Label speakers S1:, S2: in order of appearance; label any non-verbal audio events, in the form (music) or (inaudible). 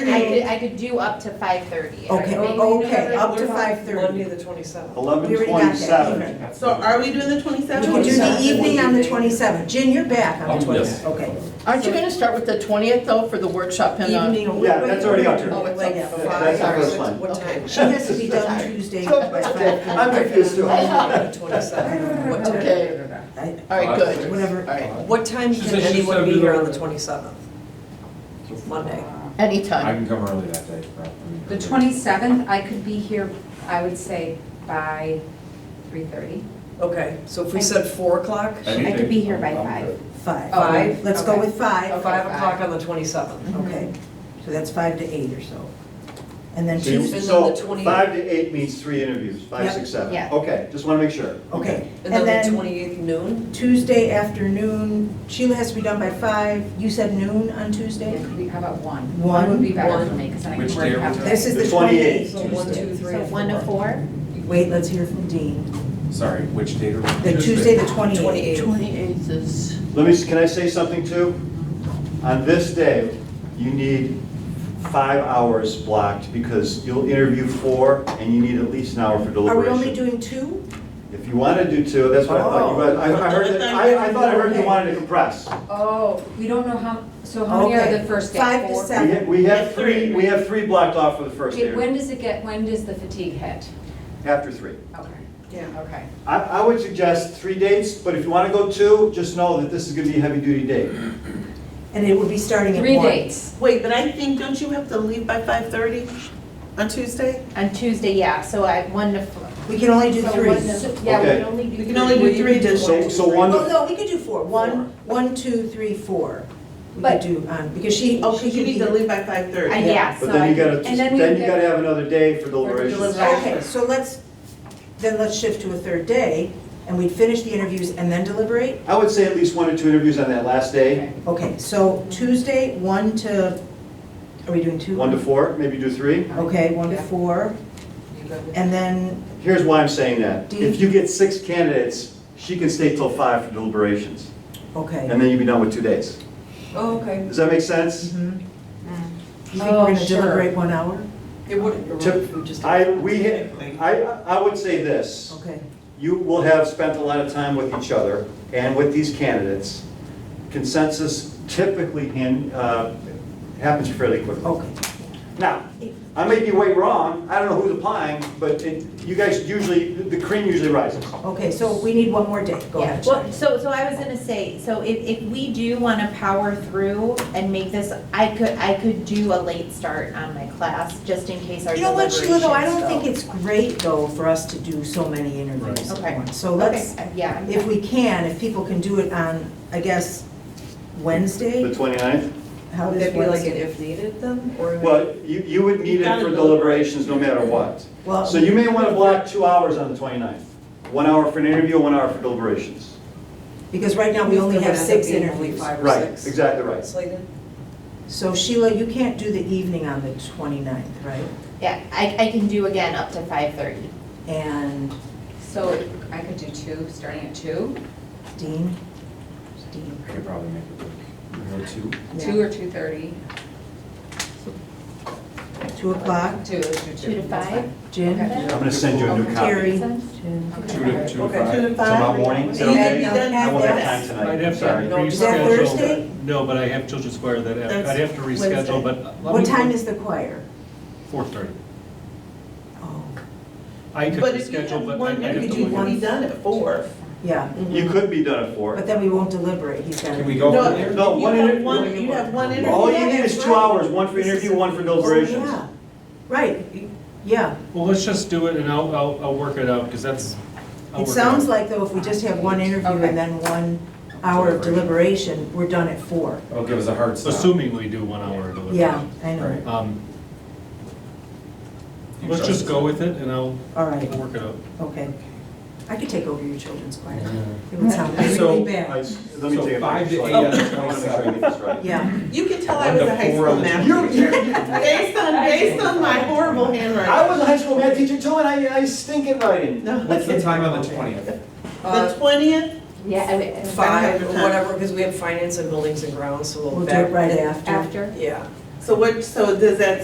S1: I could, I could do up to five thirty.
S2: Okay, Oh, okay, up to
S3: What about
S2: five
S3: Monday,
S2: thirty.
S3: the twenty-seventh.
S2: We
S4: Eleven
S2: already got that,
S4: twenty-seven.
S5: So are we doing the
S2: We
S5: twenty-seventh?
S2: can do the
S3: 27th.
S2: evening on the twenty-seventh. Jen, you're back on the
S6: Oh, yes.
S2: twenty-seventh, okay.
S7: Aren't you gonna start with the twentieth though for the workshop and uh,
S2: Evening. oh, wait,
S4: Yeah,
S2: wait,
S4: that's already out
S2: wait,
S4: there.
S7: Oh, it's
S2: wait,
S7: up.
S2: yeah,
S4: Yeah, That's the
S2: sorry.
S4: first one.
S3: What time? (laughs)
S2: She has to be done
S4: (laughs)
S2: Tuesday by five.
S4: I'm confused too.
S3: The twenty-seventh. What time?
S7: okay,
S2: I-
S7: all right, good.
S2: Whatever.
S7: All right,
S3: What time
S6: She
S3: can
S6: said she
S3: anyone
S6: said
S3: be
S6: we
S3: here
S6: were-
S3: on the twenty-seventh? Monday.
S8: I
S7: anytime.
S8: can come early that day. but-
S1: The twenty-seventh, I could be here, I would say by three thirty.
S3: Okay, so if we said four o'clock,
S1: I could be here by five.
S2: Five.
S3: Five.
S2: Let's go
S1: Okay.
S2: with five, Mm-hmm.
S3: five
S1: five.
S3: o'clock on the twenty-seventh.
S2: okay. So that's five to eight or so. And then
S4: So you-
S2: Tuesday,
S4: So
S3: the 20
S4: five to eight means three interviews, five,
S2: Yep.
S4: six, seven.
S1: Yeah.
S4: Okay, just want to make sure.
S2: okay.
S3: And then the twenty-eighth noon?
S2: Tuesday afternoon, Sheila has to be done by five. You said noon on Tuesday?
S1: Could we- How about one?
S2: One?
S1: Would be better for
S3: One.
S1: me, because then I
S6: Which
S1: can
S6: day
S1: work
S6: are we
S1: out.
S6: doing?
S2: This is
S4: The
S2: the twenty-eighth.
S4: 28th.
S3: So one, two, three,
S1: So
S3: and
S1: one to
S3: four.
S1: four?
S2: Wait, let's hear from Dean.
S6: Sorry, which date are we?
S2: The Tuesday, the twenty-eighth.
S3: 28th.
S7: Twenty-eighth is,
S4: Let me, s- can I say something too? On this day, you need five hours blocked because you'll interview four and you need at least an hour for
S2: Are we only
S4: deliberation.
S2: doing two?
S4: If you want to do two, that's what I thought you,
S2: Oh.
S4: wanted. I I heard, that- I, I thought I heard you wanted to compress.
S1: Oh, we don't know how, so how many are
S2: Okay.
S1: the first day?
S2: Five to
S1: Four?
S4: We ha-
S2: seven.
S4: We have three, we have three blocked off for the first
S1: Okay, When
S4: interview,
S1: does it get, when does the fatigue hit?
S4: after three.
S1: Okay,
S3: Yeah.
S1: okay.
S4: I, I would suggest three dates, but if you want to go two, just know that this is going to be a heavy-duty day.
S2: And it would be starting at
S1: Three
S2: one.
S1: dates.
S5: Wait, but I think, don't you have to leave by five-thirty on Tuesday?
S1: On Tuesday, yeah, so I, one to four.
S2: We can only do
S1: So
S2: three.
S1: one to- Yeah, we
S4: Okay.
S1: can only do.
S5: We can only do three this
S4: So, so one,
S2: Well,
S4: to-
S2: Oh, no, we could do four. One, one, two, three, four. We could
S1: But-
S2: do, um, because she, oh,
S5: Because
S2: she
S5: you
S2: could
S5: need
S2: be.
S5: to leave by five-thirty.
S1: I- Yeah, so.
S4: but then you
S1: I-
S4: gotta,
S1: and we
S4: then you
S1: would-
S4: gotta have another day for deliberations.
S1: deliberation.
S2: Okay, so let's, then let's shift to a third day, and we'd finish the interviews and then deliberate?
S4: I would say at least one or two interviews on that last day,
S2: Okay, so Tuesday, one to, are we doing two?
S4: one to four, maybe do three.
S2: Okay, one to four, and then,
S4: Here's why I'm saying that.
S2: Do you-
S4: If you get six candidates, she can stay till five for deliberations,
S2: okay.
S4: and then you'll be done with two days.
S3: Oh, okay.
S4: Does that make sense?
S2: Mhm. You think
S1: Oh,
S2: we're gonna
S1: sure.
S2: deliberate one hour?
S3: It wouldn't.
S4: Tip-
S3: we just-
S4: I, we, I, I would say this.
S2: Okay.
S4: You will have spent a lot of time with each other and with these candidates. Consensus typically hand- uh, happens fairly quickly.
S2: Okay.
S4: Now, I may be way wrong, I don't know who's applying, but it- you guys usually, the cream usually rises.
S2: Okay, so we need one more day, go
S8: Yeah,
S2: ahead.
S8: well, so, so I was gonna say, so if, if we do wanna power through and make this, I could, I could do a late start on my class, just in case our
S2: You know what, Sheila, though, I don't think
S8: deliberations
S2: it's great, though, for us to do so many interviews
S8: Right.
S2: at
S8: Okay.
S2: once. So
S8: go-
S2: let's,
S8: Okay, yeah. I'm-
S2: if we can, if people can do it on, I guess,
S4: The
S2: Wednesday?
S4: 29th?
S2: How
S3: Would
S2: does
S3: that be like an
S2: Wednesday-
S3: if needed then, or?
S4: Well, you, you would need it for deliberations no matter what.
S2: Well,
S4: So you may want to block two hours on the 29th. One hour for an interview, one hour for deliberations.
S2: because right now we only have six
S3: There might be only
S2: interviews.
S3: Five
S4: Right,
S3: or six.
S4: exactly right.
S3: Slated?
S2: So Sheila, you can't do the evening on the 29th, right?
S8: Yeah, I, I can do again up to five thirty.
S2: And
S1: So I could do two, starting at two,
S2: Dean? Dean.
S6: I could probably make it work. Or two.
S1: two or two thirty,
S2: Yeah. 2 o'clock,
S1: two, let's do two.
S8: Two to
S1: that's
S8: five?
S1: fine.
S2: Jen?
S4: I'm going to send you a new copy.
S2: Terry?
S8: Sense?
S2: Jen.
S1: Okay.
S6: Two to, two to
S3: Okay,
S6: five.
S5: Two to five.
S4: Tomorrow morning, is that
S5: And
S4: okay?
S5: you'd be done
S4: I won't have time
S2: Yes.
S4: tonight,
S9: I'd have
S4: I'm
S9: to
S4: sorry.
S3: No,
S9: reschedule.
S3: is
S2: that Thursday?
S9: No, but I have to square that, out. I'd have to
S2: That's
S9: reschedule, but. let
S2: What
S9: me-
S2: time is the choir?
S9: Four thirty.
S2: Oh,
S9: I could
S5: But if you
S9: reschedule,
S5: have
S9: but I- I'd
S5: one
S9: have
S5: interview,
S9: to
S5: you
S9: look
S5: would
S9: at.
S5: be done at four.
S2: yeah,
S4: You could be done at
S2: but
S4: four.
S2: then we won't deliberate, he's got to...
S6: Can we go from there?
S4: No,
S5: You
S4: one
S5: have
S4: inter-
S5: one- You have one interview.
S4: All you need is two
S2: Yeah,
S4: hours, one for interview, one for deliberations.
S2: Yeah, right, yeah.
S9: Well, let's just do it and I'll, I'll, I'll work it out, because that's. I'll
S2: It
S9: work
S2: sounds
S9: out.
S2: like though, if we just have one interview
S1: Okay.
S2: and then one hour of deliberation, we're done at four.
S6: It'll give us a hard stop.
S9: Assuming we do one hour delivery.
S2: Yeah, I know,
S6: Right.
S9: Um,
S6: You
S9: let's
S6: charge
S9: just go with it and I'll,
S2: all
S9: I'll
S2: right,
S9: work it out.
S2: okay. I could take over your children's choir.
S6: Yeah.
S2: It would sound really
S6: So,
S4: I-
S2: bad.
S4: Let me
S6: So
S4: take a.
S6: five to
S4: picture.
S6: eight on the
S4: I wanna make sure I get this right.
S2: Yeah,
S5: You can tell I was a high
S6: One to four
S5: school
S6: on the
S5: math
S6: twenty-
S5: teacher. Based on, based on my horrible handwriting.
S4: I was a high school math teacher too, and I, I stink at writing.
S5: No,
S6: What's the time on the twentieth?
S3: Mm-hmm.
S5: The twentieth,
S8: Yeah, I would-
S3: Five,
S5: Five.
S3: or whatever, because we have finance and buildings and grounds, so we'll.
S2: we'll do
S3: back-
S2: it right after.
S8: after?
S3: Yeah.
S5: so So what, so does that